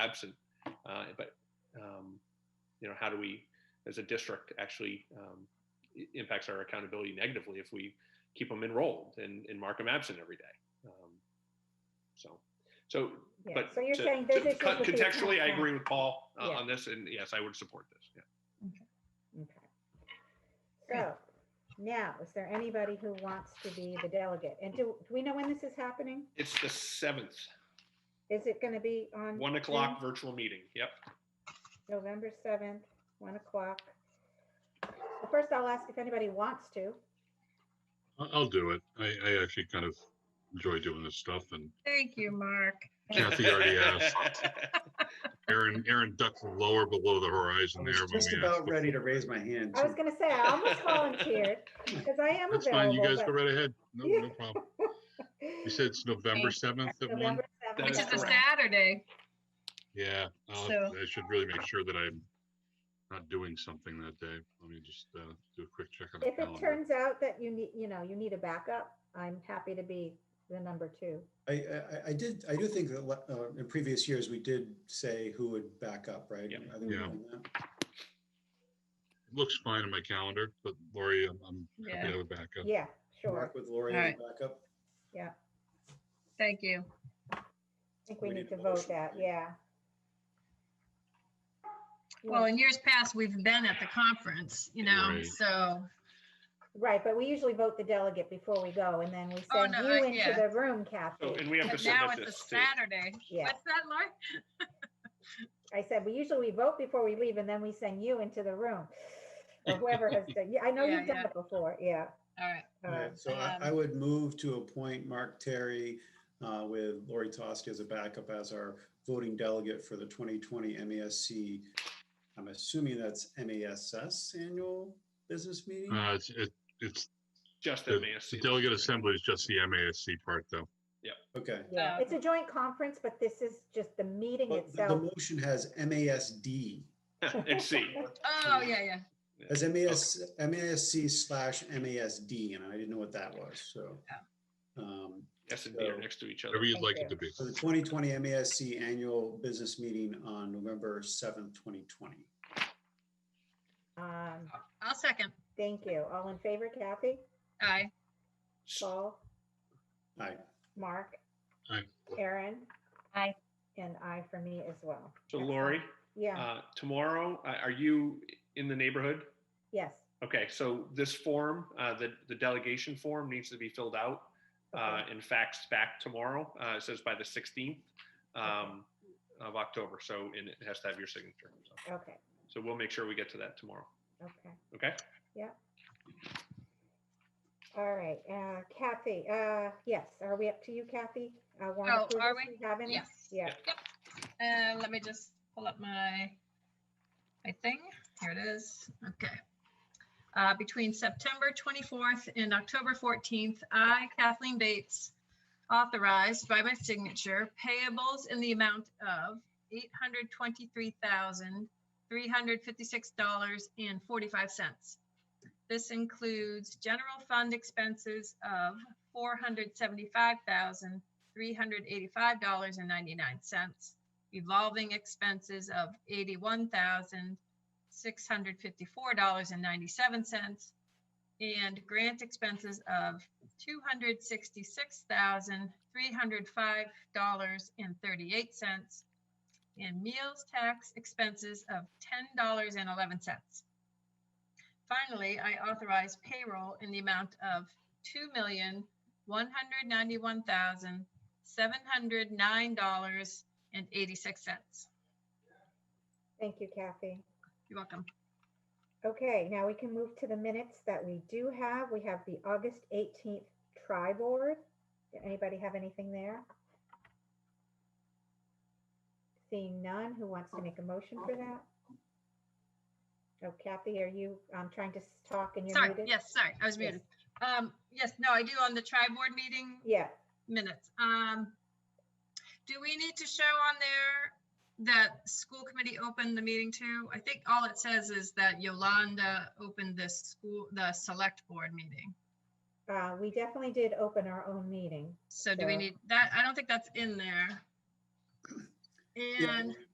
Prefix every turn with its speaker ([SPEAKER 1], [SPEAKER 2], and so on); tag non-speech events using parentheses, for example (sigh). [SPEAKER 1] absent. Uh, but um, you know, how do we, as a district, actually um, i- impacts our accountability negatively if we keep them enrolled and, and mark them absent every day. Um, so, so,
[SPEAKER 2] Yeah,
[SPEAKER 1] but
[SPEAKER 2] So you're
[SPEAKER 1] to-
[SPEAKER 2] saying
[SPEAKER 1] to-
[SPEAKER 2] those issues.
[SPEAKER 1] con-
[SPEAKER 2] with the account
[SPEAKER 1] contextually, I
[SPEAKER 2] plan.
[SPEAKER 1] agree with Paul uh,
[SPEAKER 2] Yeah.
[SPEAKER 1] on this, and yes, I would support this. Yeah.
[SPEAKER 2] Okay. So now, is there anybody who wants to be the delegate? And do, do we know when this is happening?
[SPEAKER 1] It's the seventh,
[SPEAKER 2] Is it going to be on?
[SPEAKER 1] one o'clock
[SPEAKER 2] Zoom?
[SPEAKER 1] virtual meeting. Yep.
[SPEAKER 2] November 7th, 1 o'clock. So First, I'll ask if anybody wants to.
[SPEAKER 3] I- I'll do it. I, I actually kind of enjoy doing this stuff and
[SPEAKER 4] Thank you, Mark.
[SPEAKER 3] Kathy already asked. Aaron, Aaron ducked lower below the
[SPEAKER 5] I
[SPEAKER 3] horizon there.
[SPEAKER 5] was
[SPEAKER 3] when
[SPEAKER 5] just
[SPEAKER 3] we
[SPEAKER 5] about
[SPEAKER 3] asked.
[SPEAKER 5] ready to raise my hand.
[SPEAKER 2] I was going to say, I
[SPEAKER 1] (laughs)
[SPEAKER 2] almost volunteered because I am
[SPEAKER 3] That's fine. You guys go
[SPEAKER 2] available.
[SPEAKER 3] right ahead. No,
[SPEAKER 2] Yeah.
[SPEAKER 3] no problem.
[SPEAKER 2] but-
[SPEAKER 3] You said it's November 7th at one?
[SPEAKER 2] November 7th.
[SPEAKER 1] That
[SPEAKER 4] Which
[SPEAKER 1] is
[SPEAKER 4] is a
[SPEAKER 1] correct.
[SPEAKER 4] Saturday.
[SPEAKER 3] Yeah, I'll-
[SPEAKER 4] So-
[SPEAKER 3] I should really make sure that I'm not doing something that day. Let me just uh, do a quick check on the
[SPEAKER 2] If it
[SPEAKER 3] calendar.
[SPEAKER 2] turns out that you need, you know, you need a backup, I'm happy to be the number two.
[SPEAKER 5] I, I, I did, I do think that le- uh, in previous years, we did say who would back up, right?
[SPEAKER 1] Yeah.
[SPEAKER 5] I think we've
[SPEAKER 3] Yeah.
[SPEAKER 5] done that.
[SPEAKER 3] Looks fine on my calendar, but Lori, I'm- I'm happy to
[SPEAKER 4] Yeah.
[SPEAKER 3] have a backup.
[SPEAKER 2] Yeah, sure.
[SPEAKER 5] Mark with Lori
[SPEAKER 4] All
[SPEAKER 5] as
[SPEAKER 4] right.
[SPEAKER 5] backup.
[SPEAKER 4] Thank you.
[SPEAKER 2] I think we need to vote
[SPEAKER 5] motion,
[SPEAKER 2] that,
[SPEAKER 5] right?
[SPEAKER 2] yeah.
[SPEAKER 4] Well,
[SPEAKER 2] Yeah,
[SPEAKER 4] in years past, we've been at the conference, you know,
[SPEAKER 3] Right.
[SPEAKER 4] so,
[SPEAKER 2] Right, but we usually vote the delegate before we go and then we
[SPEAKER 4] Oh,
[SPEAKER 2] send
[SPEAKER 4] no,
[SPEAKER 2] you
[SPEAKER 4] I-
[SPEAKER 2] into
[SPEAKER 4] yeah.
[SPEAKER 2] the
[SPEAKER 1] (laughs)
[SPEAKER 2] room,
[SPEAKER 1] So,
[SPEAKER 2] Kathy.
[SPEAKER 1] and we have to
[SPEAKER 4] but now
[SPEAKER 1] submit
[SPEAKER 4] it's a
[SPEAKER 1] this to.
[SPEAKER 4] Saturday.
[SPEAKER 2] Yeah,
[SPEAKER 4] What's that, Mark?
[SPEAKER 2] I said, we usually we vote before we leave and then we send you into the room. Or whoever has done, yeah, I know
[SPEAKER 4] Yeah,
[SPEAKER 2] you've done
[SPEAKER 4] yeah.
[SPEAKER 2] it before, yeah.
[SPEAKER 4] All right.
[SPEAKER 5] All
[SPEAKER 2] Uh,
[SPEAKER 5] right, So I,
[SPEAKER 4] um,
[SPEAKER 5] I would move to appoint Mark Terry uh, with Lori Toski as a backup as our voting delegate for the 2020 MASC. E I'm assuming that's MASS annual business meeting?
[SPEAKER 3] Uh, it's, it- it's,
[SPEAKER 1] Just
[SPEAKER 3] the
[SPEAKER 1] MASC.
[SPEAKER 3] the delegate assembly is just the MASC part though.
[SPEAKER 5] Okay.
[SPEAKER 2] Yeah,
[SPEAKER 4] Um,
[SPEAKER 2] it's a joint conference, but this is just the meeting
[SPEAKER 5] But The the
[SPEAKER 2] itself.
[SPEAKER 5] motion has E MASD.
[SPEAKER 1] (laughs) And C.
[SPEAKER 4] Oh, yeah, yeah.
[SPEAKER 5] As MAS, MASC slash MASD, and I didn't know what that was, so. Um,
[SPEAKER 1] S and D are next to each other.
[SPEAKER 3] Whatever you'd
[SPEAKER 2] Thank
[SPEAKER 3] like it
[SPEAKER 2] you.
[SPEAKER 3] to be.
[SPEAKER 5] So the 2020 MASC Annual Business Meeting on November 7th, 2020.
[SPEAKER 2] Um,
[SPEAKER 4] I'll second.
[SPEAKER 2] Thank you. All in favor, Kathy,
[SPEAKER 4] Aye.
[SPEAKER 2] Paul,
[SPEAKER 5] Aye.
[SPEAKER 2] Mark?
[SPEAKER 3] Aye.
[SPEAKER 2] Karen?
[SPEAKER 4] Aye.
[SPEAKER 2] And I for me as well.
[SPEAKER 1] So
[SPEAKER 2] Excellent.
[SPEAKER 1] Lori,
[SPEAKER 2] Yeah,
[SPEAKER 1] uh, tomorrow, uh, are you in the neighborhood?
[SPEAKER 2] yes.
[SPEAKER 1] Okay, so this form, uh, the, the delegation form needs to be filled out uh,
[SPEAKER 2] okay.
[SPEAKER 1] and faxed back tomorrow. Uh, It says by the 16th um, of October, so, and it has to have your signature. So-
[SPEAKER 2] Okay,
[SPEAKER 1] So we'll make sure we get to that tomorrow,
[SPEAKER 2] okay.
[SPEAKER 1] okay?
[SPEAKER 2] All right, uh, Kathy, uh, yes, are we up to you, Kathy? Uh, warrant
[SPEAKER 4] Oh,
[SPEAKER 2] approvals
[SPEAKER 4] are we?
[SPEAKER 2] Have any?
[SPEAKER 4] Yes.
[SPEAKER 2] Yeah,
[SPEAKER 4] And let me just pull up my, my thing. Here it is. Okay. Uh, Between September 24th and October 14th, I, Kathleen Bates, authorized by my signature payables in the amount of $823,356.45. This includes general fund expenses of $475,385.99 evolving expenses of eighty-one thousand six hundred fifty-four dollars and ninety-seven cents and grant expenses of two hundred sixty-six thousand three hundred five dollars and thirty-eight cents and meals tax expenses of ten dollars and eleven cents. Finally, I authorize payroll in the amount of two million one hundred ninety-one thousand seven hundred nine dollars and eighty-six cents.
[SPEAKER 2] thank you, Kathy.
[SPEAKER 4] You're welcome.
[SPEAKER 2] Okay, now we can move to the minutes that we do have. We have the August 18th tri board. Did anybody have anything there? Seeing none, who wants to make a motion for that? Oh, Kathy, are you um, trying to s- talk and you're
[SPEAKER 4] Sorry,
[SPEAKER 2] muted?
[SPEAKER 4] yes, sorry, I was
[SPEAKER 2] Yes.
[SPEAKER 4] muted. Um, yes, no, I do on the tri board meeting
[SPEAKER 2] Yeah,
[SPEAKER 4] minutes. Um, do we need to show on there that school committee opened the meeting too? I think all it says is that Yolanda opened the school, the select board meeting.
[SPEAKER 2] uh, we definitely did open our own meeting.
[SPEAKER 4] So do we
[SPEAKER 2] Sure.
[SPEAKER 4] need that? I don't think that's in there.
[SPEAKER 5] Yeah,
[SPEAKER 4] And